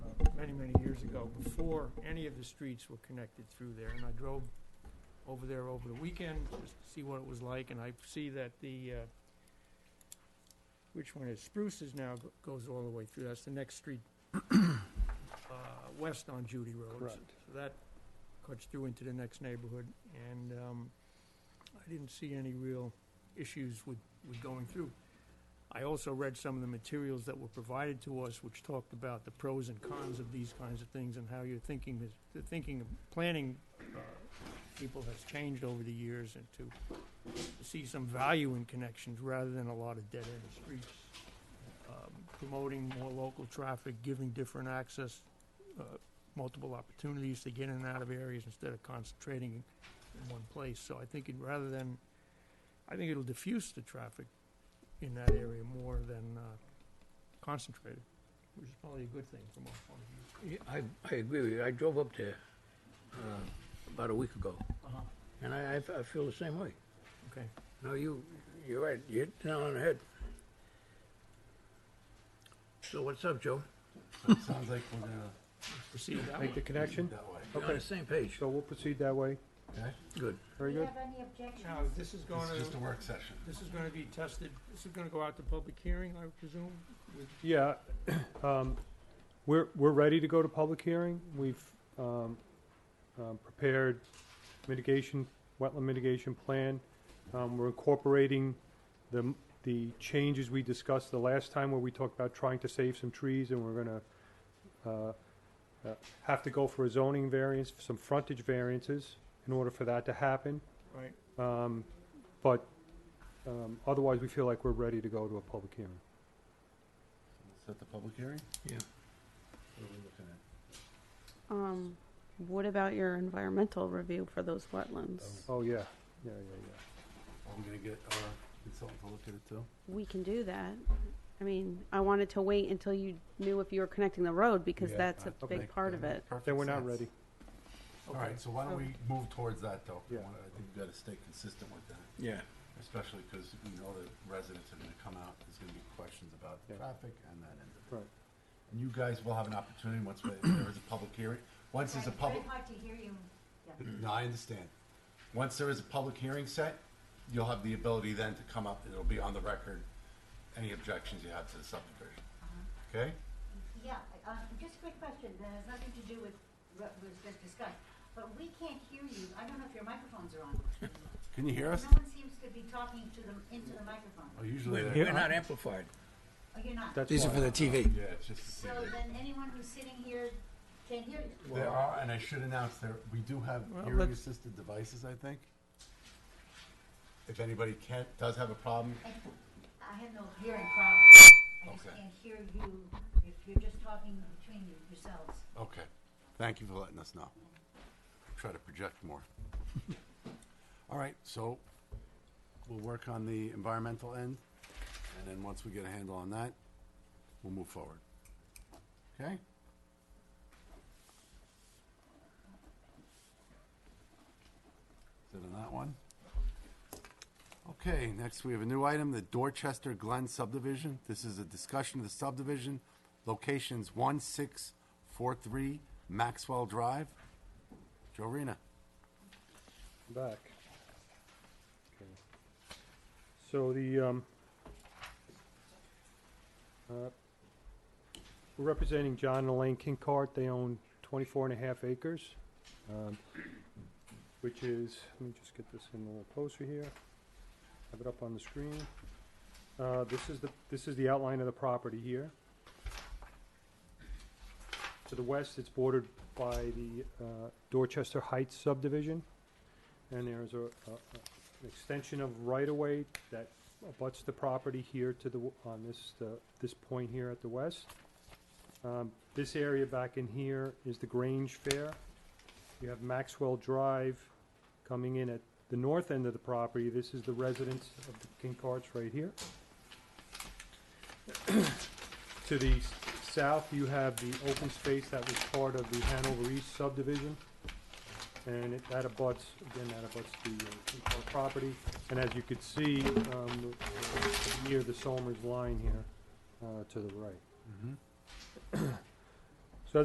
years ago, before any of the streets were connected through there, and I drove over there over the weekend, just to see what it was like, and I see that the, uh, which one is, Spruce's now go- goes all the way through, that's the next street, uh, west on Judy Road. Correct. So that cuts through into the next neighborhood, and, um, I didn't see any real issues with, with going through. I also read some of the materials that were provided to us, which talked about the pros and cons of these kinds of things and how your thinking, is- the thinking of planning uh, people has changed over the years and to see some value in connections rather than a lot of dead-end streets. Um, Promoting more local traffic, giving different access, uh, multiple opportunities to get in and out of areas instead of concentrating in one place. So I think it, rather than, I think it'll diffuse the traffic in that area more than uh, concentrated, which is probably a good thing from our point of Yeah, I, I agree with you. I drove up there uh, about a week ago, view. and I, I f- I feel the same way. Okay. No, you, you're right. You hit the nail on the head. So what's up, Joe? Sounds like we're gonna Proceed that make the way. connection. That way. Okay. on the same page. So we'll proceed that way. Good. Very good. Do you have any objections? Now, this is going It's to, just a work session. this is going to be tested, this is going to go out to public hearing, I presume? Yeah, um, we're, we're ready to go to public hearing. We've, um, um, prepared mitigation, wetland mitigation plan. Um, we're incorporating the, the changes we discussed the last time where we talked about trying to save some trees and we're gonna, uh, uh, have to go for a zoning variance, some frontage variances in order for that to happen. Right. Um, but, um, otherwise, we feel like we're ready to go to a public hearing. Set the public hearing? Yeah. What are we looking at? Um, what about your environmental review for those wetlands? Oh, yeah, yeah, yeah, yeah. I'm gonna get our consultant to look at it too. We can do that. I mean, I wanted to wait until you knew if you were connecting the road because Yeah, that's uh, a big make- part that of makes it. perfect Then we're not sense. ready. All right, so why don't we move towards that though? I Yeah. wanna- I think we gotta stay consistent with that, Yeah. especially because we know that residents are gonna come out, there's gonna be questions about the Yeah. traffic and that end of it. Right. And you guys will have an opportunity once we- there is a public hearing, once there's a It's very public, hard to hear you. Yeah. no, I understand. Once there is a public hearing set, you'll have the ability then to come up, it'll be on the record, any objections you have to the subdivision, okay? Yeah, uh, just a quick question, that has nothing to do with what was just discussed, but we can't hear you, I don't know if your microphones are on. Can you hear No us? one seems to be talking to them, into the microphone, Oh, oh, usually We're they're. we're not amplified. you're not. That's These are why. for the TV. Yeah, it's just. So then anyone who's sitting here can't hear you. There are, and I should announce there, we do have Well, hearing let's- assisted devices, I think. If anybody can't, does have a problem, I I have no hearing problem, I just Okay. can't hear you, if you're just talking between you- yourselves. okay. Thank you for letting us know. Try to project more. All right, so we'll work on the environmental end, and then once we get a handle on that, we'll move forward. Okay? Is it on that one? Okay, next we have a new item, the Dorchester Glen subdivision. This is a discussion of the subdivision, locations one six four three Maxwell Drive. Joe Rena. Back. Okay. So the, um, uh, we're representing John and Elaine Kinkart. They own 24 and a half acres, um, which is, let me just get this in a little closer here. Have it up on the screen. Uh, this is the, this is the outline of the property here. To the west, it's bordered by the, uh, Dorchester Heights subdivision. And there's a, a, an extension of right-of-way that abuts the property here to the, w- on this, uh, this point here at the west. Um, this area back in here is the Grange Fair. You have Maxwell Drive coming in at the north end of the property. This is the residence of the Kincarts right here. To the s- south, you have the open space that was part of the Hanover East subdivision. And it, that abuts, again, that abuts the uh, Kincaid property. And as you could see, um, near the Solmers line here, uh, to the right.